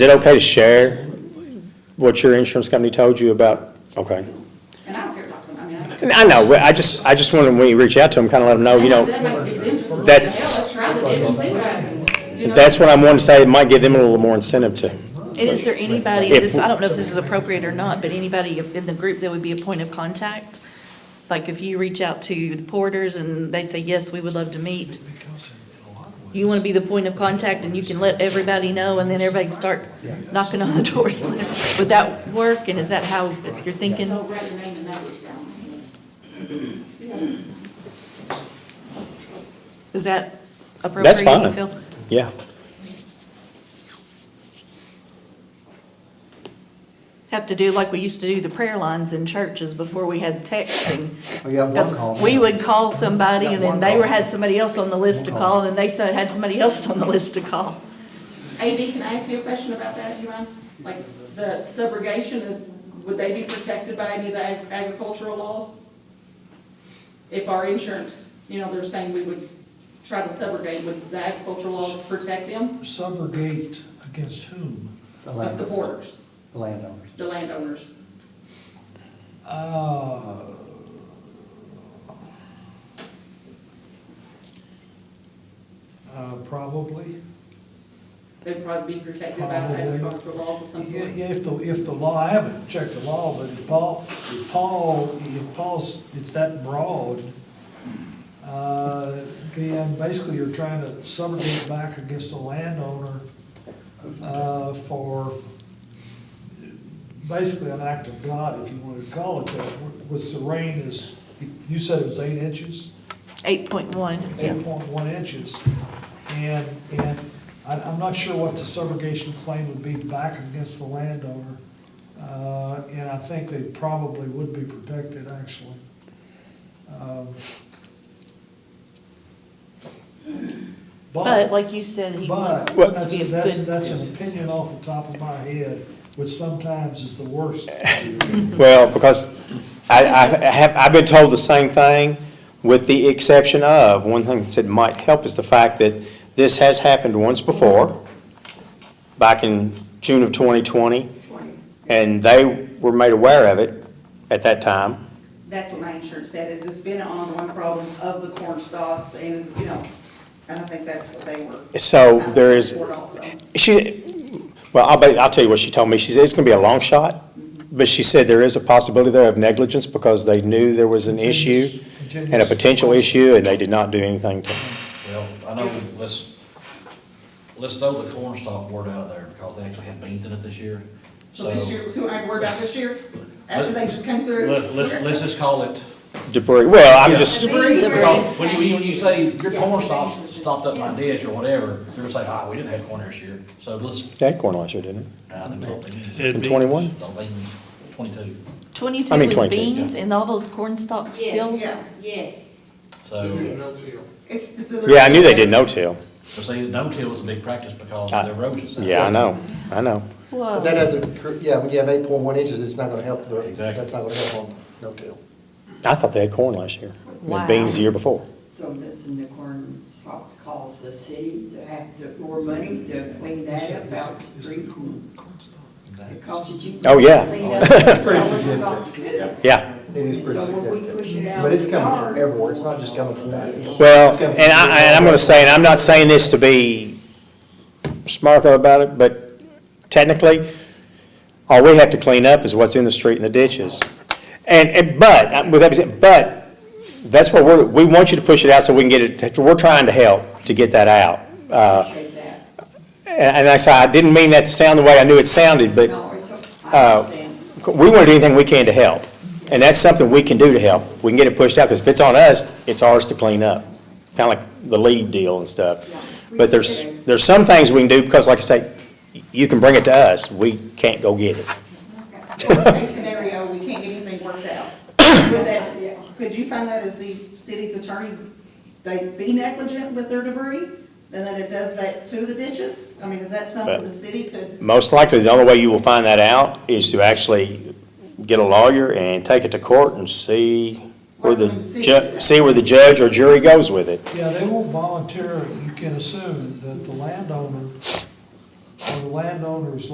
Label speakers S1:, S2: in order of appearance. S1: Is it okay to share what your insurance company told you about? Okay.
S2: And I don't care about them, I mean, I.
S1: And I know, but I just, I just wanted, when you reach out to them, kind of let them know, you
S2: That
S1: know,
S2: might give them just a little bit of
S1: That's-
S2: hell, let's try the ditch, see what happens. You know?
S1: that's what I'm wanting to say, it might give them a little more incentive to.
S3: And is there anybody,
S1: If-
S3: this, I don't know if this is appropriate or not, but anybody in the group that would be a point of contact? Like if you reach out to the porters and they say, yes, we would love to meet, you want to be the point of contact and you can let everybody know and then everybody can start knocking on the doors. Would that work? And is that how you're thinking?
S2: So write your name and numbers down.
S3: Is that appropriate,
S1: That's
S3: you
S1: fine.
S3: feel?
S1: Yeah.
S3: Have to do like we used to do the prayer lines in churches before we had texting.
S4: We got Oh, one call.
S3: We would call somebody and then they
S4: Got one
S3: were,
S4: call.
S3: had somebody else on the list to call, and then they said, had somebody else on the list to call.
S2: AB, can I ask you a question about that, if you mind? Like, the subrogation, is- would they be protected by any of the ag- agricultural laws? If our insurance, you know, they're saying we would try to subrogate, would the agricultural laws protect them
S5: Subrogate against whom?
S4: The
S2: of the
S4: land-
S2: borders,
S4: the landowners.
S2: the landowners?
S5: Uh, uh, Probably.
S2: They'd probably be protected by
S5: Probably.
S2: agricultural laws of some
S5: Yeah,
S2: sort.
S5: yeah, If the, if the law, I haven't checked the law, but if Paul, if Paul, if Paul's, it's that broad, uh, then basically you're trying to subrogate back against a landowner uh, for basically an act of God, if you wanted to call it that. Was the rain is, you said it was eight inches?
S3: Eight point one,
S5: eight
S3: yes.
S5: point one inches. And, and I, I'm not sure what the subrogation claim would be back against the landowner. Uh, and I think they probably would be protected, actually. Um,
S3: But like you said, he
S5: But,
S3: wants to
S5: that's,
S3: be a
S5: that's, that's
S3: good.
S5: an opinion off the top of my head, which sometimes is the worst.
S1: Well, because I, I have, I've been told the same thing, with the exception of, one thing that said might help is the fact that this has happened once before, back in June of 2020, and they were made aware of it at that time.
S6: That's what my insurance said, is it's been an ongoing problem of the corn stalks and is, you know, and I think that's what they were.
S1: So there is-
S6: Kind of also.
S1: She, well, I'll, bet- I'll tell you what she told me. She said it's going to be a long shot, but she said there is a possibility there of negligence because they knew there was an issue and a
S5: Continuous.
S1: potential issue, and they did not do anything to.
S7: Well, I know, let's, let's throw the corn stalk word out of there because they actually had beans in it this year.
S6: So this year, so I worried about this year, after they just came through.
S7: Let's, let's, let's just call it.
S1: Debris, well, I'm
S7: Yeah.
S1: just,
S2: Debris.
S7: Because When you, when you say your corn stalk stopped up my ditch or whatever, they're gonna say, ah, we didn't have corn this year. So let's,
S1: that corn last year, didn't
S7: I think it's all beans,
S1: it? In 21?
S7: It's all beans, twenty-two.
S1: I
S3: Twenty-two
S1: mean,
S3: was
S1: 22,
S3: beans and all those corn stalks
S8: Yes.
S3: still?
S6: Yeah,
S8: Yes.
S7: So,
S6: it's.
S1: Yeah, I knew they did no-till.
S7: so see, no-till was a big practice because
S1: I-
S7: of the erosion. side.
S1: Yeah, I know, I know.
S3: Whoa.
S4: But that doesn't, cr- yeah, when you have eight point one inches, it's not gonna help, the-
S7: Exactly.
S4: that's not gonna help on no-till.
S1: I thought they had corn last year,
S3: Wow.
S1: and beans the year before.
S8: So doesn't the corn stalk cause the city to have to, more money to clean that up out the street? It costs you.
S1: Oh, yeah.
S8: Clean up the corn stalks.
S1: Yeah,
S4: It is
S8: And
S4: pretty
S8: so when we
S4: significant.
S8: push it out.
S4: But it's
S8: the
S4: coming
S8: yard,
S4: from everywhere, it's not just coming from that. field.
S1: well,
S4: It's coming
S1: and
S4: from
S1: I, and I'm going to say, and I'm not saying this to be smart about it, but technically, all we have to clean up is what's in the street and the ditches. And, and, but, uh, with that being said, but, that's what we're, we want you to push it out so we can get it, we're trying to help to get that out. Uh,
S8: Appreciate that.
S1: And and I say, I didn't mean that to sound the way I knew it sounded, but
S8: No, it's, okay. I
S1: uh,
S8: understand.
S1: we want to do anything we can to help. And that's something we can do to help. We can get it pushed out, because if it's on us, it's ours to clean up. Kind of like the lead deal and stuff. But there's, there's some things we can do, because like I say, you can bring it to us, we can't go get it.
S6: Worst case scenario, we can't get anything worked out. Would that- Could you find that as the city's attorney, they be negligent with their debris? And then it does that to the ditches? I mean, is that something the city could?
S1: Most likely, the only way you will find that out is to actually get a lawyer and take it to court and see where the, ju- see where the judge or jury goes with it.
S5: Yeah, they won't volunteer, you can assume that the landowner, or the landowner's